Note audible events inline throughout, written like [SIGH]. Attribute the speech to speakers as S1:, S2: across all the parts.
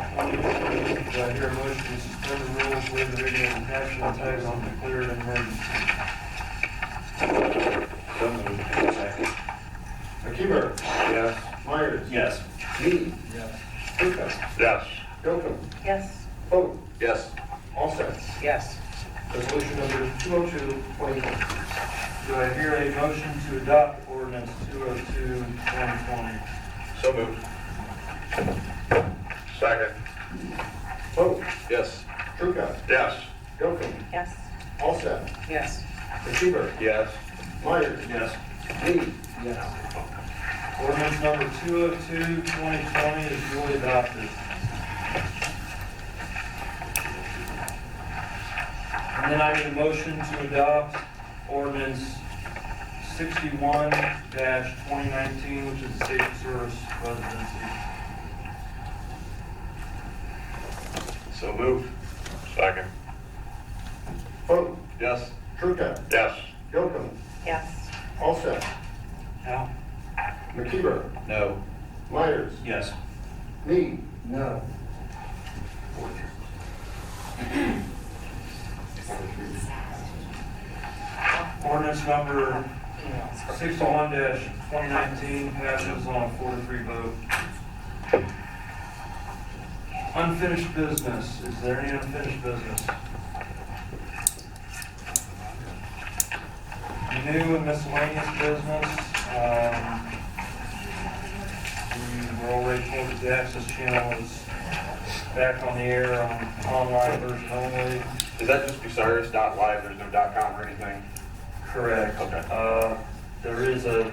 S1: that. Do I hear a motion to suspend the rules, waive the reading of the caption, and title on declared an emergency?
S2: So moved. Second.
S1: Akiva,
S2: Yes.
S1: Myers.
S2: Yes.
S1: Mead. Yes. Luca.
S2: Yes.
S1: Gilpin.
S3: Yes.
S1: Foote.
S2: Yes.
S1: All set.
S3: Yes.
S1: Resolution number 202, 2020. Do I hear a motion to adopt ordinance 202, 2020?
S2: So moved. Second.
S1: Foote.
S2: Yes.
S1: Luca.
S2: Yes.
S1: Gilpin.
S3: Yes.
S1: All set.
S3: Yes.
S1: Akiva,
S2: Yes.
S1: Myers.
S2: Yes.
S1: Mead. Yes. Ordinance number 202, 2020 is duly adopted. And then I need a motion to adopt ordinance 61-2019, which is the safe service residency.
S2: So moved. Second.
S1: Vote.
S2: Yes.
S1: Trucca.
S2: Yes.
S1: Gilpin.
S3: Yes.
S1: Alsep.
S3: No.
S1: McKeever.
S2: No.
S1: Myers.
S2: Yes.
S1: Mead. No. Ordinance number sixty-one twenty nineteen passes on a four to three vote. Unfinished business, is there any unfinished business? New and miscellaneous business, um, we were already told that the access channel is back on the air, on online version only.
S2: Is that just Bucyrus dot live? There's no dot com or anything?
S1: Correct.
S2: Okay.
S1: Uh, There is a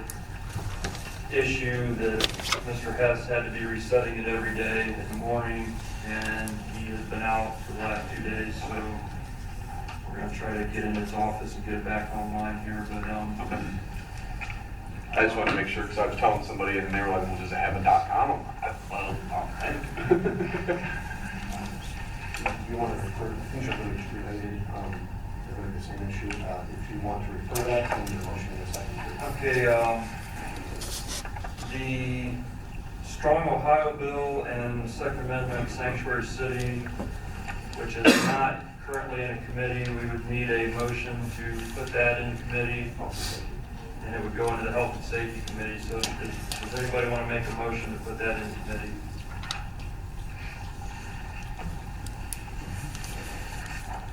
S1: issue that Mr. Hess had to be resetting it every day in the morning, and he has been out for the last two days, so we're gonna try to get in his office and get it back online here, but,
S2: Okay.
S1: um,
S2: I just wanted to make sure, because I was telling somebody and they were like, well, does it have a dot com? I'm like, Well, I don't think. [LAUGHS]
S4: If you want to refer, I think it's really related, um, they're going to the same issue. Uh, If you want to refer that, then your motion in a second.
S1: okay, um, the Strong Ohio Bill and Second Amendment Sanctuary City, which is not currently in a committee, we would need a motion to put that in committee. And it would go into the Health and Safety Committee, so does does anybody want to make a motion to put that in committee?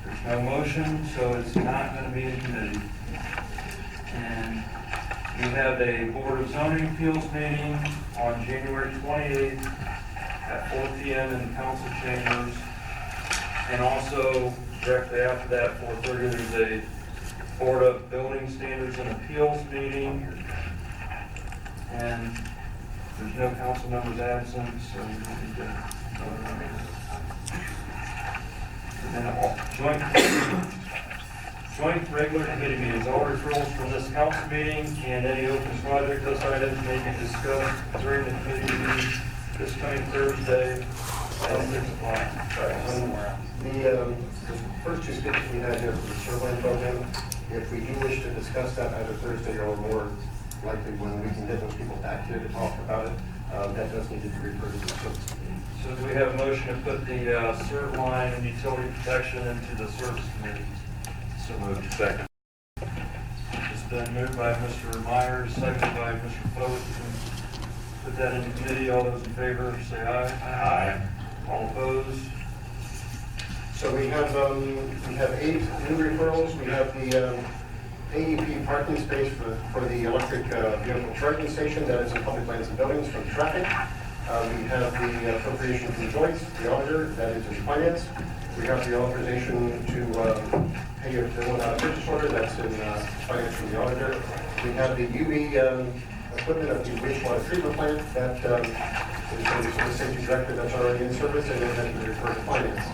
S1: There's no motion, so it's not going to be in committee. And we have a Board of Zoning Appeals meeting on January 28th at 4 PM in the council chambers. And also directly after that, 4:30, there's a Board of Building Standards and Appeals meeting. And there's no council members absent, so we don't need to. vote on it. And then all joint Joint regular committee meetings, all referrals from this council meeting and any open project list items may be discussed during the committee meeting this coming Thursday at six o'clock.
S4: The, um, the first two speakers we had here for the shoreline program, if we do wish to discuss that either Thursday or more likely when we can get those people back here to talk about it, um, that does need to be referred to the service committee.
S1: So do we have a motion to put the uh, cert line and utility protection into the service committee? So moved.
S2: Second.
S1: It's been moved by Mr. Myers, seconded by Mr. Foat. Put that into committee. All those in favor, say aye. Aye. All opposed?
S4: So we have, um, we have eight new referrals, we have the, um, AEP parking space for, for the electric uh, vehicle charging station that is in public lands and buildings from traffic. Uh, we have the appropriation from Joyce, the auditor, that is in finance. We have the authorization to, um, pay a bill out of purchase order, that's in, uh, finance from the auditor. We have the UV, um, equipment of the wastewater treatment plant that, um, is going to the safety director that's already in service and then has been referred to finance.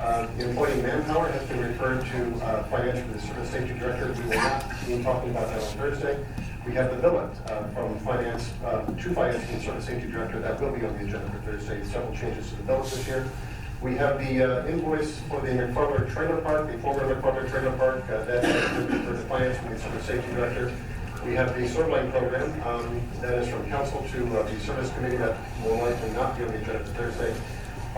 S4: Uh, the Employee manpower has been referred to uh, finance for the service safety director. We will not be talking about that on Thursday. We have the billet uh, from finance, uh, to finance and service safety director. That will be on the agenda for Thursday. Several changes to the billet this year. We have the uh, invoice for the McFarland Trailer Park, the former McFarland Trailer Park, uh, that has been referred to finance from the service safety director. We have the Survey program, um, that is from council to uh, the service committee, that will likely not be on the agenda for Thursday.